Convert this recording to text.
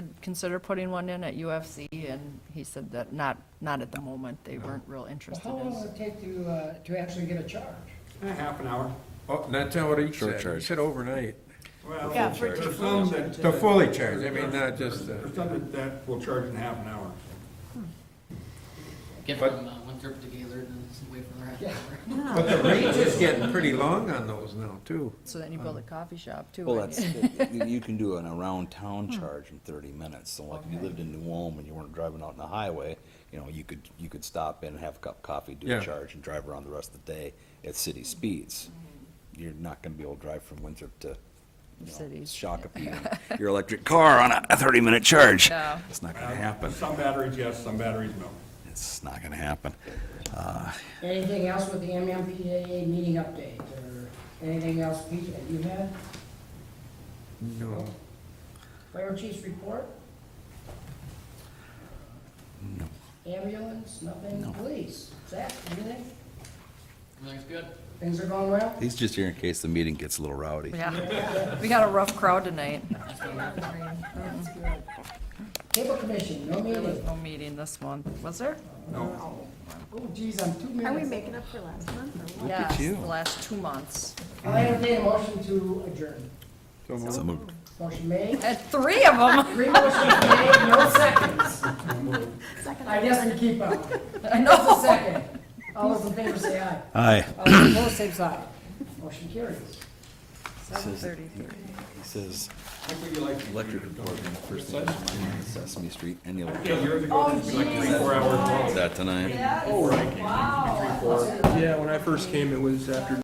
consider putting one in at UFC, and he said that not, not at the moment, they weren't real interested How long will in. it take to, uh, to actually get a charge? Eh, Half an hour. Oh, that's not what he Short said. He charge. said overnight. Well, Yeah, for it to there's fully some charge. that- The fully charged, I mean, not just uh, the, There's some that- that will charge in half an hour. Get But- from uh, Winthrop to Gaylord and s- wait for the rest. but the range is getting pretty long on those now, too. So then you build a coffee shop too. Well, right? that's, you you can do an around-town Hmm. charge in thirty minutes, so like if you lived in New Ulm and you weren't driving out on the highway, you know, you could, you could stop in, have a cup of coffee, do Yeah. a charge, and drive around the rest of the day at Hmm. city speeds. You're not gonna be able to drive from Winthrop to, you know, Cities. Shakopee, in your electric car on a thirty-minute charge. Yeah. It's not gonna happen, Uh, Some batteries, yes, some batteries, no. it's not gonna happen. Uh, Anything else with the MMPAA meeting update, or anything else Pete, that you had? No. Fire chief's report? No. Ambulance, nothing, police, Zach, anything? Everything's good. Things are going well? He's just here in case the meeting gets a little rowdy. Yeah, we got a rough crowd tonight. Cable commission, no There was meeting. no meeting this month, was there? Oh, geez, I'm two minutes. Are we making up for last month or what? Yes, you. the last two months. I'll entertain a motion to adjourn. So moved. So moved. Motion made, At three of them, three motions made, no seconds. Second. I guess we keep up. I Just a know. second. All those in favor say aye. Oh. Aye. All those opposed, same sign. Motion carries. Seven thirty-three. He says, What would you like? electric department, first thing on my mind is Sesame Street, and the electric. Years ago, it'd be like three, four hours long. That tonight. Oh, right. Three, four. Yeah, when I first came, it was after